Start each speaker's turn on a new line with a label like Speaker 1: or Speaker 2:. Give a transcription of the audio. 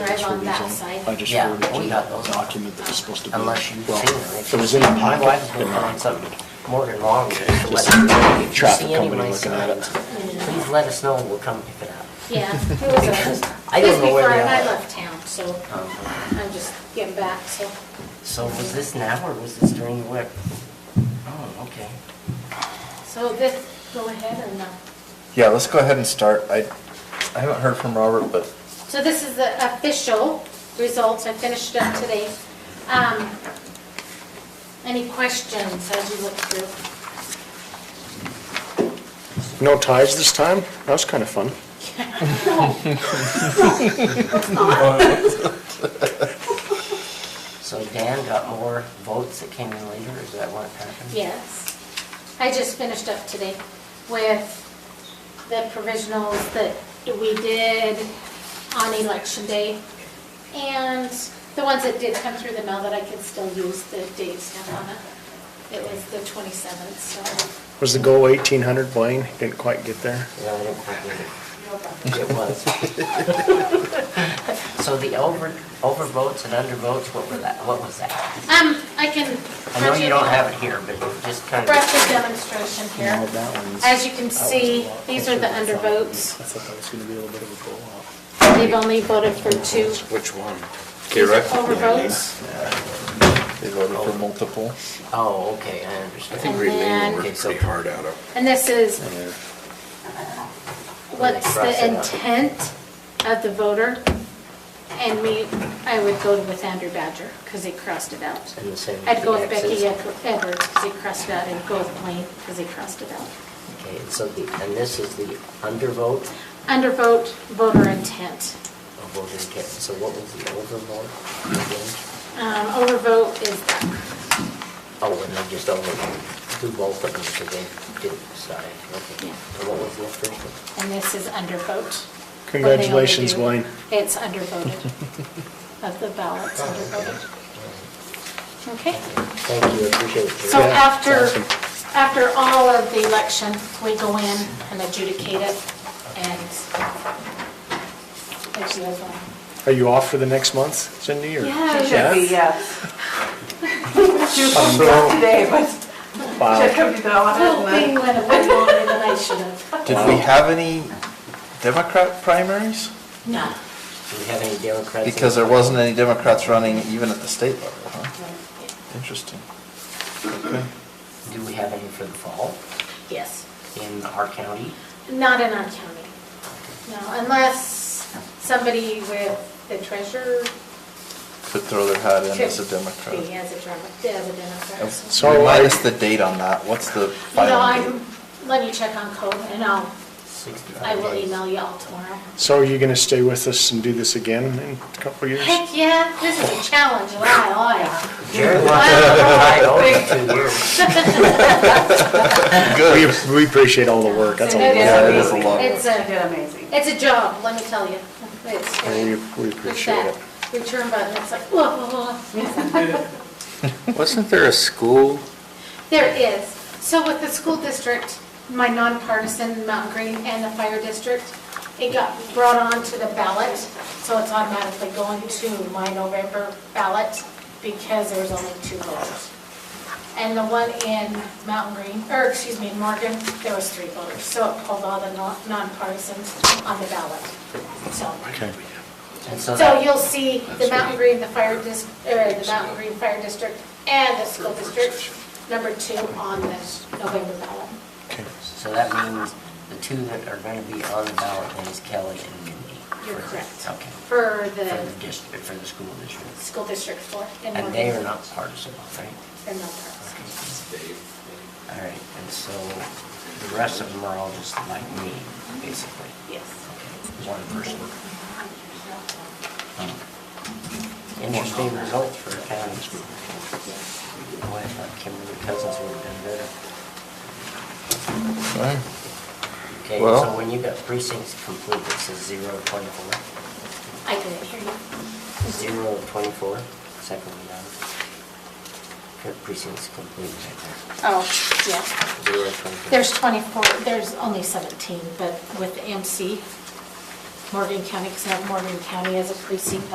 Speaker 1: on
Speaker 2: for
Speaker 1: that
Speaker 2: these,
Speaker 1: side.
Speaker 2: and I just
Speaker 3: Yeah,
Speaker 2: forwarded
Speaker 3: we
Speaker 2: you
Speaker 3: got
Speaker 2: that
Speaker 3: those.
Speaker 2: document that was supposed to be.
Speaker 3: Unless you've
Speaker 2: well,
Speaker 3: seen it.
Speaker 2: It was in the
Speaker 3: My
Speaker 2: packet.
Speaker 3: wife's been
Speaker 2: and I
Speaker 3: on something,
Speaker 2: forwarded it.
Speaker 3: Morgan Long, just
Speaker 2: Okay,
Speaker 3: to
Speaker 2: just
Speaker 3: let us know. If you
Speaker 2: traffic
Speaker 3: see any of
Speaker 2: company
Speaker 3: my
Speaker 2: looking at it.
Speaker 3: signs, please let us know, we'll come pick it up.
Speaker 1: Yeah, it was, a-
Speaker 3: I
Speaker 1: it was
Speaker 3: don't know where
Speaker 1: before
Speaker 3: they
Speaker 1: and I
Speaker 3: are. Um,
Speaker 1: left town, so I'm just getting back, so.
Speaker 3: So was this now, or was this during the whip? Oh, okay.
Speaker 1: So this, go ahead and, uh,
Speaker 4: Yeah, let's go ahead and start. I, I haven't heard from Robert, but
Speaker 1: so this is the official results, I finished up today. Um, Any questions as you look through?
Speaker 2: No ties this time? That was kind of fun.
Speaker 3: So Dan got more votes that came in later, is that what happened?
Speaker 1: Yes. I just finished up today with the provisionals that we did on election day. And the ones that did come through the mail that I could still use, the dates have on it. It was the 27th, so.
Speaker 2: Was the goal 1,800, Blaine? Didn't quite get there.
Speaker 3: Yeah, I didn't quite get it. It was. So the over, overvotes and undervotes, what were that, what was that?
Speaker 1: Um, I can.
Speaker 3: I know you don't have it here, but it just kind of.
Speaker 1: Breath the demonstration
Speaker 2: No,
Speaker 1: here.
Speaker 2: that one's-
Speaker 1: As you can
Speaker 2: that one's a
Speaker 1: see,
Speaker 2: lot
Speaker 1: these are the
Speaker 2: closer to
Speaker 1: undervotes.
Speaker 2: I thought that was going to be a little bit of a blowout.
Speaker 1: They've only voted for two.
Speaker 2: Which one?
Speaker 1: These are Overvotes.
Speaker 4: they voted for multiple.
Speaker 3: Oh, okay, I understand.
Speaker 1: And then-
Speaker 3: Okay, so
Speaker 5: hard out of.
Speaker 1: And this is
Speaker 4: And
Speaker 1: what's the intent of the voter? And we, I would go with Andrew Badger, because he crossed it out.
Speaker 3: And the same with
Speaker 1: I'd go
Speaker 3: the
Speaker 1: with Becky
Speaker 3: X's.
Speaker 1: Ed- Edwards, because he crossed it out, and go with Blaine, because he crossed it out.
Speaker 3: Okay, and so the, and this is the undervote
Speaker 1: Undervote, voter intent.
Speaker 3: of voter intent. So what was the overvote again?
Speaker 1: Um, Overvote is that.
Speaker 3: Oh, and they just overvoted, do both of them, so they didn't decide, okay.
Speaker 1: Yeah.
Speaker 3: And what was the first one?
Speaker 1: And this is undervote. What they only
Speaker 2: Congratulations,
Speaker 1: do.
Speaker 2: Blaine.
Speaker 1: It's undervoted. Of the ballots, undervoted. Okay?
Speaker 3: Thank you, appreciate it.
Speaker 1: So
Speaker 2: Yeah,
Speaker 1: after,
Speaker 2: awesome.
Speaker 1: after all of the election, we go in and adjudicate it and it's the other one.
Speaker 2: Are you off for the next month, Cindy, or?
Speaker 1: Yeah,
Speaker 2: Yeah?
Speaker 6: Should be, yes. She was supposed to go today, but she had
Speaker 2: Wow.
Speaker 6: come to the office
Speaker 1: whole
Speaker 6: and
Speaker 1: thing
Speaker 6: then
Speaker 1: went away longer than I should have.
Speaker 4: Did we have any Democrat primaries?
Speaker 1: No,
Speaker 3: Do we have any Democrats? in
Speaker 4: Because
Speaker 3: the-
Speaker 4: there wasn't any Democrats running even at the state level, huh? Interesting.
Speaker 3: Do we have any for the fall
Speaker 1: yes,
Speaker 3: in our county?
Speaker 1: not in our county. No, unless somebody with the treasurer
Speaker 4: Could throw their hat in
Speaker 1: could
Speaker 4: as a
Speaker 1: be
Speaker 4: Democrat.
Speaker 1: as a Demo- as a Democrat. so-
Speaker 2: So
Speaker 4: Remind
Speaker 2: I-
Speaker 4: us the date on that. What's the
Speaker 1: You know,
Speaker 4: final
Speaker 1: I'm,
Speaker 4: date?
Speaker 1: let me check on code and I'll, I
Speaker 3: Sixty-five
Speaker 1: will
Speaker 3: days.
Speaker 1: email you all tomorrow.
Speaker 2: So are you going to stay with us and do this again in a couple of years?
Speaker 1: Heck yeah, this is a challenge, oh, and I like.
Speaker 3: Jared wants to divide over two years.
Speaker 4: Good.
Speaker 2: We- We appreciate all the work, that's all.
Speaker 1: It
Speaker 4: Yeah, it is a lot.
Speaker 1: It's
Speaker 6: she
Speaker 1: a,
Speaker 6: did amazing.
Speaker 1: it's a job, let me tell you. It's-
Speaker 2: We we
Speaker 1: It's
Speaker 2: appreciate
Speaker 1: that
Speaker 2: it.
Speaker 1: return button, it's like, whoa, whoa, whoa.
Speaker 7: Wasn't there a school?
Speaker 1: There is. So with the school district, my nonpartisan Mountain Green and the fire district, it got brought on to the ballot, so it's automatically going to my November ballot because there was only two voters. And the one in Mountain Green, or excuse me, in Morgan, there was three voters, so it pulled all the non- nonpartisans on the ballot, so.
Speaker 2: Okay.
Speaker 3: And so
Speaker 1: So
Speaker 3: that-
Speaker 1: you'll see the Mountain Green, the fire dis, or the Mountain Green Fire District and the school district, number two on the November ballot.
Speaker 3: so that means the two that are gonna be on the ballot then is Kelly and Mindy.
Speaker 1: You're correct.
Speaker 3: Okay.
Speaker 1: For
Speaker 3: For the
Speaker 1: the
Speaker 3: district, for the school district.
Speaker 1: school district four. in
Speaker 3: And they are
Speaker 1: Morgan.
Speaker 3: not partisan, right?
Speaker 1: They're not partisan.
Speaker 3: All right, and so the rest of them are all just like me, basically.
Speaker 1: Yes.
Speaker 3: One person. Interesting results for a county. Boy, I thought Kimberly Cousins would have done better.
Speaker 4: Right.
Speaker 3: Okay,
Speaker 4: Well-
Speaker 3: so when you got precincts complete, it says zero of twenty-four.
Speaker 1: I didn't hear you.
Speaker 3: Zero of twenty-four, second one down. Got Precincts complete right
Speaker 1: Oh, yeah.
Speaker 3: there. Zero of twenty-four.
Speaker 1: There's 24, there's only 17, but with MC, Morgan County, because Morgan County as a precinct,